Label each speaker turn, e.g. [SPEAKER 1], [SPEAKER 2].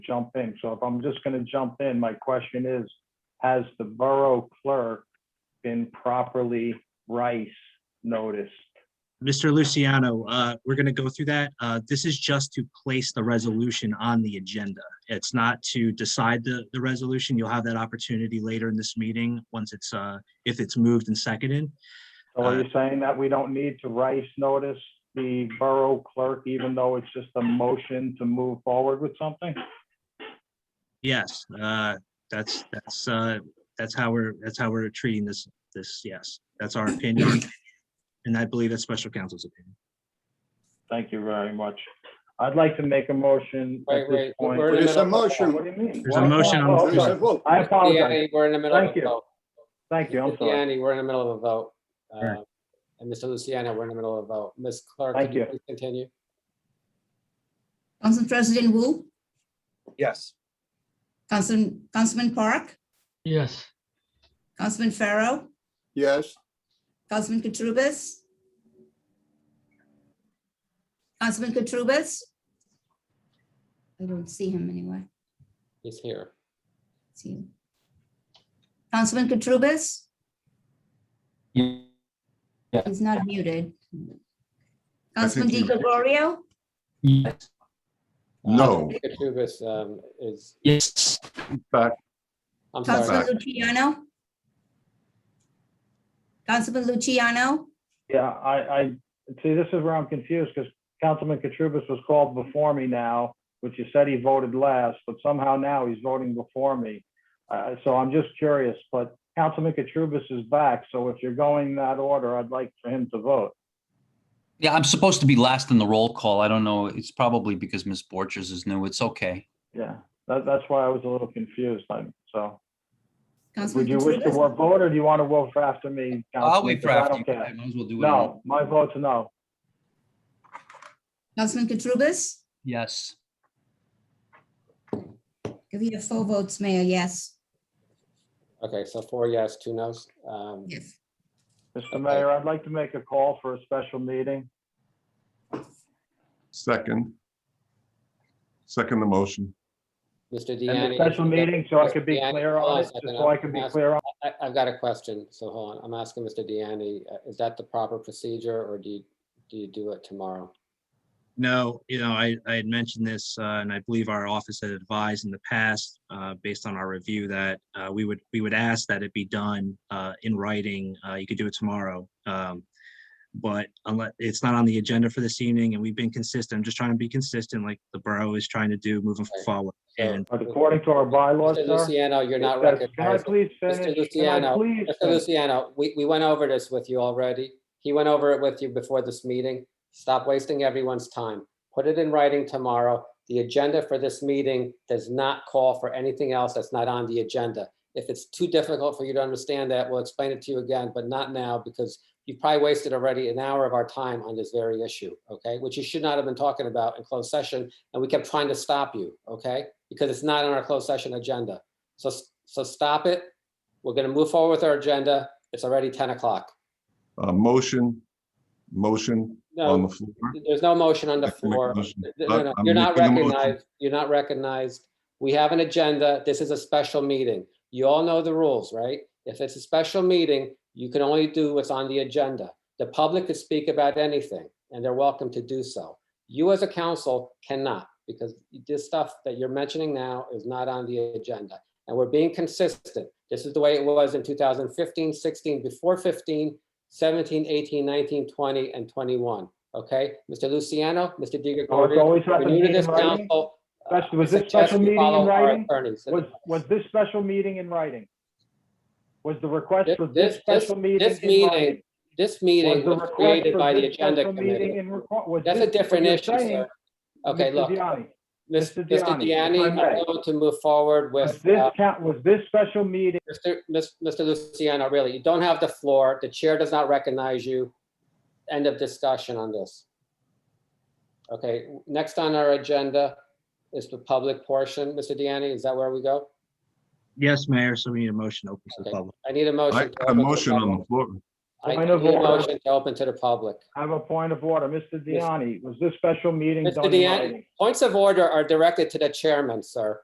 [SPEAKER 1] jump in. So if I'm just going to jump in, my question is, has the borough clerk been properly rice noticed?
[SPEAKER 2] Mr. Luciano, uh, we're going to go through that. Uh, This is just to place the resolution on the agenda. It's not to decide the, the resolution. You'll have that opportunity later in this meeting, once it's, uh, if it's moved and seconded.
[SPEAKER 1] So are you saying that we don't need to rice notice the borough clerk, even though it's just a motion to move forward with something?
[SPEAKER 2] Yes, uh, that's, that's, uh, that's how we're, that's how we're treating this, this, yes. That's our opinion. And I believe that's special counsel's opinion.
[SPEAKER 1] Thank you very much. I'd like to make a motion at this
[SPEAKER 3] Wait, wait,
[SPEAKER 1] point.
[SPEAKER 3] we're in the
[SPEAKER 4] There's a
[SPEAKER 3] middle of a
[SPEAKER 4] motion.
[SPEAKER 1] What do you mean?
[SPEAKER 2] There's a
[SPEAKER 1] What?
[SPEAKER 2] motion on the
[SPEAKER 1] Oh,
[SPEAKER 2] floor.
[SPEAKER 1] oh,
[SPEAKER 4] There's a
[SPEAKER 1] sorry.
[SPEAKER 4] vote.
[SPEAKER 1] I apologize.
[SPEAKER 3] Deanne, we're in the middle of
[SPEAKER 1] Thank
[SPEAKER 3] a
[SPEAKER 1] you.
[SPEAKER 3] vote.
[SPEAKER 1] Thank you, I'm sorry.
[SPEAKER 3] Deanne, we're in the middle of a vote.
[SPEAKER 2] Right.
[SPEAKER 3] Uh, And Mr. Luciano, we're in the middle of a vote. Ms. Clerk,
[SPEAKER 1] Thank
[SPEAKER 3] can you
[SPEAKER 1] you.
[SPEAKER 3] please continue?
[SPEAKER 5] Council President Wu,
[SPEAKER 4] Yes.
[SPEAKER 5] Council, Councilman Park,
[SPEAKER 6] Yes,
[SPEAKER 5] Councilman Farrow,
[SPEAKER 4] Yes.
[SPEAKER 5] Councilman Katurbis. Councilman Katurbis. I don't see him anywhere.
[SPEAKER 3] He's here.
[SPEAKER 5] See him. Councilman Katurbis. He's not muted. Councilman
[SPEAKER 7] he-
[SPEAKER 5] Di Gregorio,
[SPEAKER 6] yes,
[SPEAKER 7] No,
[SPEAKER 3] Katurbis, um is,
[SPEAKER 6] yes,
[SPEAKER 7] but
[SPEAKER 3] I'm sorry.
[SPEAKER 5] Councilman Luciano. Councilman Luciano,
[SPEAKER 1] Yeah, I, I, see, this is where I'm confused, because Councilman Katrubis was called before me now, which you said he voted last, but somehow now he's voting before me. Uh, so I'm just curious, but Councilman Katrubis is back, so if you're going that order, I'd like for him to vote.
[SPEAKER 8] Yeah, I'm supposed to be last in the roll call. I don't know. It's probably because Ms. Borchers is new. It's okay.
[SPEAKER 1] Yeah, that, that's why I was a little confused, I'm, so. Would
[SPEAKER 5] Councilman
[SPEAKER 1] you wish to
[SPEAKER 5] Katurbis.
[SPEAKER 1] vote, vote, or do you want to vote for after me?
[SPEAKER 8] I'll
[SPEAKER 1] Councilman?
[SPEAKER 8] wait for
[SPEAKER 1] 'Cause I
[SPEAKER 8] after.
[SPEAKER 1] don't
[SPEAKER 8] you.
[SPEAKER 1] care.
[SPEAKER 8] I might as well do it. all.
[SPEAKER 1] No, my vote's no.
[SPEAKER 5] Councilman Katurbis.
[SPEAKER 8] Yes.
[SPEAKER 5] If you have four votes, Mayor, yes.
[SPEAKER 3] Okay, so four yes, two no's. Um,
[SPEAKER 5] Yes.
[SPEAKER 1] Mr. Mayor, I'd like to make a call for a special meeting.
[SPEAKER 7] second. Second the motion.
[SPEAKER 3] Mr.
[SPEAKER 1] And
[SPEAKER 3] Deanne.
[SPEAKER 1] the special meeting, so I could be
[SPEAKER 3] Mr. Deanne,
[SPEAKER 1] clear
[SPEAKER 3] hold
[SPEAKER 1] on
[SPEAKER 3] a
[SPEAKER 1] it,
[SPEAKER 3] second.
[SPEAKER 1] just so I could
[SPEAKER 3] I'm
[SPEAKER 1] be
[SPEAKER 3] ask-
[SPEAKER 1] clear on.
[SPEAKER 3] I, I've got a question, so hold on. I'm asking Mr. Deanne, uh, is that the proper procedure or do you, do you do it tomorrow?
[SPEAKER 2] No, you know, I, I had mentioned this, uh, and I believe our office had advised in the past, uh, based on our review, that, uh, we would, we would ask that it be done, uh, in writing. Uh, you could do it tomorrow. Um, but unless, it's not on the agenda for this evening, and we've been consistent, I'm just trying to be consistent, like the borough is trying to do moving
[SPEAKER 3] Right.
[SPEAKER 2] forward.
[SPEAKER 3] So,
[SPEAKER 2] And
[SPEAKER 1] But according to our bylaws,
[SPEAKER 3] Mr.
[SPEAKER 1] sir.
[SPEAKER 3] Luciano, you're
[SPEAKER 1] it
[SPEAKER 3] not
[SPEAKER 1] says-
[SPEAKER 3] recognized.
[SPEAKER 1] Can I please finish? Can I
[SPEAKER 3] Luciano,
[SPEAKER 1] please?
[SPEAKER 3] Mr.
[SPEAKER 1] finish?
[SPEAKER 3] Luciano, we, we went over this with you already. He went over it with you before this meeting. Stop wasting everyone's time. Put it in writing tomorrow. The agenda for this meeting does not call for anything else that's not on the agenda. If it's too difficult for you to understand that, we'll explain it to you again, but not now because you've probably wasted already an hour of our time on this very issue, okay? Which you should not have been talking about in closed session, and we kept trying to stop you, okay? Because it's not on our closed session agenda. So, s- so stop it. We're gonna move forward with our agenda. It's already ten o'clock.
[SPEAKER 7] Uh, motion, motion on
[SPEAKER 3] No,
[SPEAKER 7] the floor.
[SPEAKER 3] there's no motion on the
[SPEAKER 7] I can make a
[SPEAKER 3] floor.
[SPEAKER 7] motion.
[SPEAKER 3] No, no, no,
[SPEAKER 7] I'm
[SPEAKER 3] You're not
[SPEAKER 7] making a motion.
[SPEAKER 3] recognized. You're not recognized. We have an agenda. This is a special meeting. You all know the rules, right? If it's a special meeting, you can only do what's on the agenda. The public could speak about anything, and they're welcome to do so. You as a council cannot, because this stuff that you're mentioning now is not on the agenda. And we're being consistent. This is the way it was in 2015, 16, before 15, 17, 18, 19, 20, and 21. Okay, Mr. Luciano, Mr.
[SPEAKER 1] Oh,
[SPEAKER 3] Di
[SPEAKER 1] it's
[SPEAKER 3] Gregorio.
[SPEAKER 1] always
[SPEAKER 3] We're
[SPEAKER 1] happening
[SPEAKER 3] new to
[SPEAKER 1] in
[SPEAKER 3] this
[SPEAKER 1] writing?
[SPEAKER 3] council.
[SPEAKER 1] That's-
[SPEAKER 3] I
[SPEAKER 1] was this
[SPEAKER 3] suggest
[SPEAKER 1] special
[SPEAKER 3] you
[SPEAKER 1] meeting in
[SPEAKER 3] follow our
[SPEAKER 1] writing?
[SPEAKER 3] attorneys.
[SPEAKER 1] Was, was this special meeting in writing? Was the request for this
[SPEAKER 3] This- this-
[SPEAKER 1] special meeting
[SPEAKER 3] This
[SPEAKER 1] in
[SPEAKER 3] meeting,
[SPEAKER 1] writing?
[SPEAKER 3] this
[SPEAKER 1] Was
[SPEAKER 3] meeting
[SPEAKER 1] the
[SPEAKER 3] was
[SPEAKER 1] request
[SPEAKER 3] created
[SPEAKER 1] for
[SPEAKER 3] by the
[SPEAKER 1] this
[SPEAKER 3] agenda
[SPEAKER 1] special meeting
[SPEAKER 3] committee.
[SPEAKER 1] in requ- was
[SPEAKER 3] That's
[SPEAKER 1] this
[SPEAKER 3] a
[SPEAKER 1] what
[SPEAKER 3] different
[SPEAKER 1] you're
[SPEAKER 3] issue,
[SPEAKER 1] saying,
[SPEAKER 3] sir. Okay,
[SPEAKER 1] Mr.
[SPEAKER 3] look,
[SPEAKER 1] Gianni?
[SPEAKER 3] Mis-
[SPEAKER 1] Mr.
[SPEAKER 3] Mr.
[SPEAKER 1] Deani,
[SPEAKER 3] Deani,
[SPEAKER 1] if I
[SPEAKER 3] I'm
[SPEAKER 1] may.
[SPEAKER 3] going to move forward
[SPEAKER 1] Was
[SPEAKER 3] with,
[SPEAKER 1] this
[SPEAKER 3] uh,
[SPEAKER 1] count, was this special meeting
[SPEAKER 3] Mr. Mis- Mr. Luciano, really, you don't have the floor. The chair does not recognize you. End of discussion on this. Okay, next on our agenda is the public portion. Mr. Deani, is that where we go?
[SPEAKER 2] yes, Mayor, so we need a motion open to the
[SPEAKER 3] Okay.
[SPEAKER 2] public.
[SPEAKER 3] I need a
[SPEAKER 7] I
[SPEAKER 3] motion. to
[SPEAKER 7] got a
[SPEAKER 3] open the
[SPEAKER 7] motion on
[SPEAKER 3] public.
[SPEAKER 7] the floor.
[SPEAKER 3] I
[SPEAKER 1] Point of
[SPEAKER 3] need a
[SPEAKER 1] order.
[SPEAKER 3] motion to open to the public.
[SPEAKER 1] I have a point of order. Mr.
[SPEAKER 3] Yes.
[SPEAKER 1] Deani, was this special meeting
[SPEAKER 3] Mr.
[SPEAKER 1] done in
[SPEAKER 3] Deani,
[SPEAKER 1] writing?
[SPEAKER 3] points of order are directed to the chairman, sir.